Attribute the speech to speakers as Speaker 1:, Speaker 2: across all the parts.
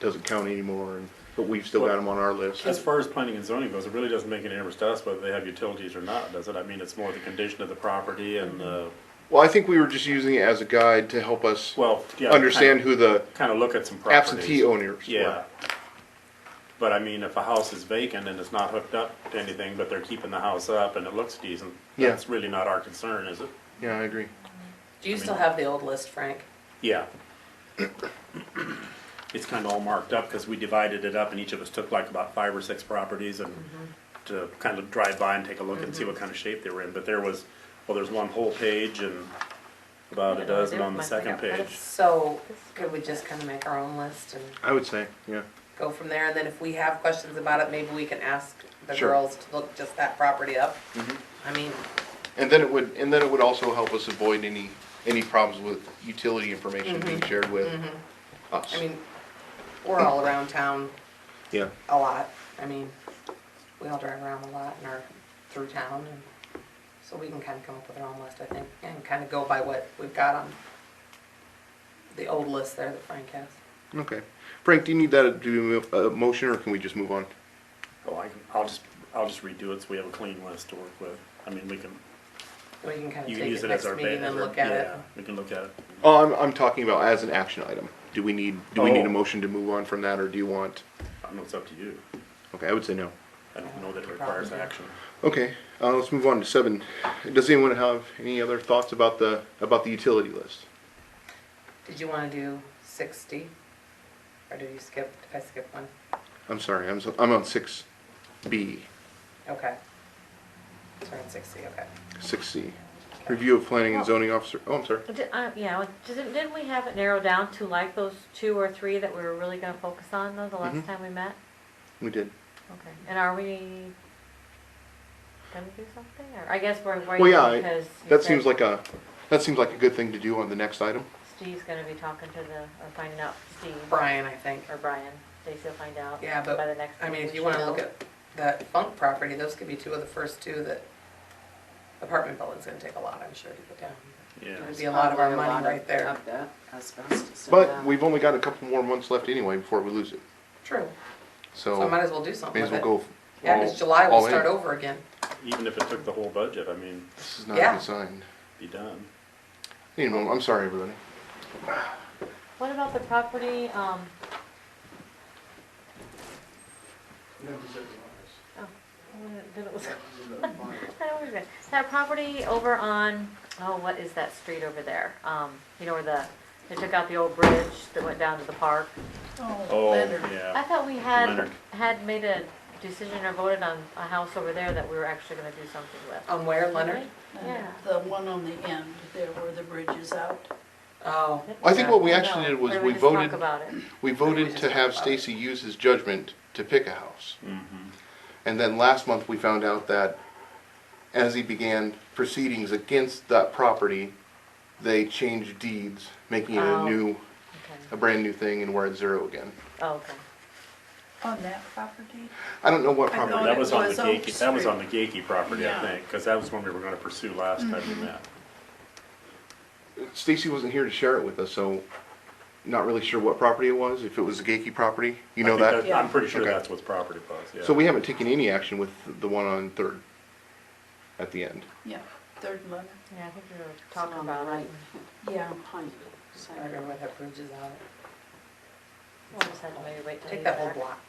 Speaker 1: doesn't count anymore, and, but we've still got them on our list.
Speaker 2: As far as planning and zoning goes, it really doesn't make any difference to us whether they have utilities or not, does it? I mean, it's more the condition of the property and, uh,
Speaker 1: Well, I think we were just using it as a guide to help us
Speaker 2: well, yeah.
Speaker 1: understand who the
Speaker 2: Kind of look at some properties.
Speaker 1: absentee owners
Speaker 2: Yeah.
Speaker 1: were.
Speaker 2: But I mean, if a house is vacant and it's not hooked up to anything, but they're keeping the house up and it looks decent,
Speaker 1: Yeah.
Speaker 2: that's really not our concern, is it?
Speaker 1: Yeah, I agree.
Speaker 3: Do you still have the old list, Frank?
Speaker 2: Yeah. It's kind of all marked up because we divided it up and each of us took like about five or six properties and
Speaker 3: Mm-hmm.
Speaker 2: to kind of drive by and take a look and see what kind of shape they were in. But there was, well, there's one whole page and about a dozen on the second page.
Speaker 3: So could we just kind of make our own list and
Speaker 1: I would say, yeah.
Speaker 3: go from there? And then if we have questions about it, maybe we can ask the
Speaker 1: Sure.
Speaker 3: girls to look just that property up?
Speaker 2: Mm-hmm.
Speaker 3: I mean,
Speaker 1: And then it would, and then it would also help us avoid any, any problems with utility information
Speaker 2: Mm-hmm.
Speaker 1: being shared with us.
Speaker 3: I mean, we're all around town
Speaker 1: Yeah,
Speaker 3: a lot. I mean, we all drive around a lot and are through town and so we can kind of come up with our own list, I think, and kind of go by what we've got on the old list there that Frank has.
Speaker 1: okay. Frank, do you need that to do a motion, or can we just move on?
Speaker 2: Oh, I can, I'll just, I'll just redo it so we have a clean list to work with. I mean, we can,
Speaker 3: We can kind
Speaker 2: you
Speaker 3: of
Speaker 2: can
Speaker 3: take
Speaker 2: use it as
Speaker 3: it next
Speaker 2: our. ba-
Speaker 3: meeting
Speaker 2: as
Speaker 3: and
Speaker 2: our-
Speaker 3: look at it.
Speaker 2: yeah, We can look at it.
Speaker 1: Oh, I'm, I'm talking about as an action item. Do we need, do we need
Speaker 2: Oh.
Speaker 1: a motion to move on from that, or do you want?
Speaker 2: I don't know, it's up to you.
Speaker 1: Okay, I would say no.
Speaker 2: I don't know that it requires
Speaker 3: Probably.
Speaker 2: action.
Speaker 1: Okay, uh, let's move on to seven. Does anyone have any other thoughts about the, about the utility list?
Speaker 3: Did you want to do sixty? Or did you skip, did I skip one?
Speaker 1: I'm sorry, I'm, so- I'm on six B,
Speaker 3: Okay. So we're on sixty, okay.
Speaker 1: six C. Review of planning and zoning officer, oh, I'm sorry.
Speaker 4: Did- uh, Yeah, well, didn't, didn't we have it narrowed down to like those two or three that we were really gonna focus on though, the
Speaker 1: Mhm.
Speaker 4: last time we met?
Speaker 1: We did.
Speaker 4: Okay, and are we gonna do something, or I guess we're
Speaker 1: Well, yeah, I-
Speaker 4: waiting because. you
Speaker 1: That
Speaker 4: said
Speaker 1: seems like a, that seems like a good thing to do on the next item.
Speaker 4: Steve's gonna be talking to the, or finding out Steve
Speaker 3: Brian, I think.
Speaker 4: or Brian, Stacy will find out.
Speaker 3: Yeah, but,
Speaker 4: By the next.
Speaker 3: I mean,
Speaker 4: meeting
Speaker 3: if
Speaker 4: we
Speaker 3: you want
Speaker 4: should
Speaker 3: to look
Speaker 4: know.
Speaker 3: at that funk property, those could be two of the first two that apartment building's gonna take a lot, I'm sure, to get down.
Speaker 2: Yeah.
Speaker 3: It would be a lot of our
Speaker 5: Probably a
Speaker 3: money
Speaker 5: lot
Speaker 3: right
Speaker 5: of-
Speaker 3: there.
Speaker 5: Of that asbestos. in
Speaker 1: But
Speaker 3: uh,
Speaker 5: that.
Speaker 1: we've only got a couple more months left anyway before we lose it.
Speaker 3: True. So I
Speaker 1: So
Speaker 3: might as well do
Speaker 1: may
Speaker 3: something
Speaker 1: as
Speaker 3: with
Speaker 1: well
Speaker 3: it.
Speaker 1: go.
Speaker 3: Yeah,
Speaker 1: all-
Speaker 3: because July
Speaker 1: all
Speaker 3: will
Speaker 1: in.
Speaker 3: start over again.
Speaker 2: Even if it took the whole budget, I mean,
Speaker 1: This is not a
Speaker 3: Yeah.
Speaker 1: good sign.
Speaker 2: be done.
Speaker 1: You know, I'm sorry, everybody.
Speaker 4: What about the property, um, oh, then it was. I don't remember. That property over on, oh, what is that street over there? Um, you know where the, they took out the old bridge that went down to the park?
Speaker 2: Oh,
Speaker 4: I
Speaker 2: yeah.
Speaker 4: thought we had,
Speaker 2: Leonard.
Speaker 4: had made a decision or voted on a house over there that we were actually gonna do something with.
Speaker 3: On where, Leonard?
Speaker 4: Yeah.
Speaker 6: The one on the end there where the bridge is out.
Speaker 3: Oh,
Speaker 1: I think what we
Speaker 4: I
Speaker 1: actually
Speaker 4: know.
Speaker 1: did was
Speaker 4: Or
Speaker 1: we
Speaker 4: just talk
Speaker 1: voted,
Speaker 4: about it.
Speaker 1: we voted to have Stacy use his judgment to pick a house.
Speaker 2: Mhm.
Speaker 1: And then last month, we found out that as he began proceedings against that property, they changed deeds, making it a
Speaker 4: Oh.
Speaker 1: new,
Speaker 4: Okay.
Speaker 1: a brand new thing and we're at zero again.
Speaker 4: Oh, okay.
Speaker 6: On that property?
Speaker 1: I don't know what
Speaker 6: I
Speaker 1: property.
Speaker 6: thought
Speaker 2: That was on the
Speaker 6: was Oak
Speaker 2: Gaki, that was
Speaker 6: Street.
Speaker 2: on the Gaki property, I
Speaker 6: Yeah.
Speaker 2: think, because that was one we were gonna pursue last time we met.
Speaker 1: Stacy wasn't here to share it with us, so not really sure what property it was, if it was a Gaki property, you
Speaker 2: I
Speaker 1: know
Speaker 2: think
Speaker 1: that?
Speaker 2: I'm pretty sure
Speaker 1: Okay.
Speaker 2: that's what the property was, yeah.
Speaker 1: So we haven't taken any action with the one on Third at the end.
Speaker 6: Yeah, third one.
Speaker 4: Yeah, I think we were
Speaker 5: It's
Speaker 4: talking
Speaker 5: on the
Speaker 4: about it.
Speaker 5: right
Speaker 6: Yeah.
Speaker 5: behind you.
Speaker 3: I remember where that bridge is out.
Speaker 4: We'll just have to maybe wait till.
Speaker 3: Take
Speaker 4: you
Speaker 3: that
Speaker 4: get
Speaker 3: whole
Speaker 4: back.
Speaker 3: block.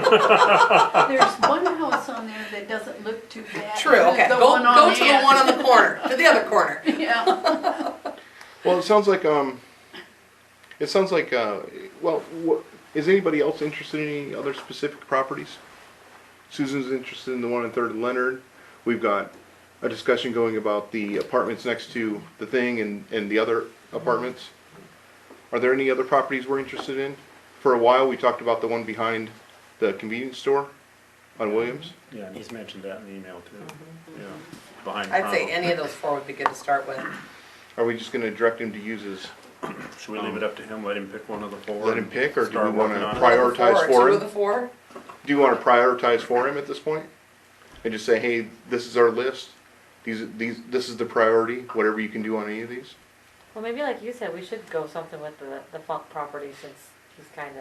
Speaker 6: There's one house on there that doesn't look too bad.
Speaker 3: True, okay,
Speaker 6: The
Speaker 3: go,
Speaker 6: one on
Speaker 3: go to the
Speaker 6: end.
Speaker 3: one on the corner, to the other corner.
Speaker 6: Yeah.
Speaker 1: Well, it sounds like, um, it sounds like, uh, well, wha- is anybody else interested in any other specific properties? Susan's interested in the one on Third and Leonard. We've got a discussion going about the apartments next to the thing and, and the other apartments. Are there any other properties we're interested in? For a while, we talked about the one behind the convenience store on Williams.
Speaker 2: Yeah, and he's mentioned that in the email too, yeah, behind.
Speaker 3: I'd say
Speaker 1: Oh.
Speaker 2: Crown.
Speaker 3: any of those four would be good to start with.
Speaker 1: Are we just gonna direct him to use his,
Speaker 2: Should we leave it up to him, let him pick one of the four?
Speaker 1: Let him
Speaker 2: and
Speaker 1: pick, or do
Speaker 2: start
Speaker 1: we wanna
Speaker 2: working on it?
Speaker 1: pri- Prioritize
Speaker 3: Four,
Speaker 1: four.
Speaker 3: Two of the four?
Speaker 1: do you wanna prioritize for him at this point? And just say, hey, this is our list, these, these, this is the priority, whatever you can do on any of these?
Speaker 4: Well, maybe like you said, we should go something with the, the funk property since he's kind of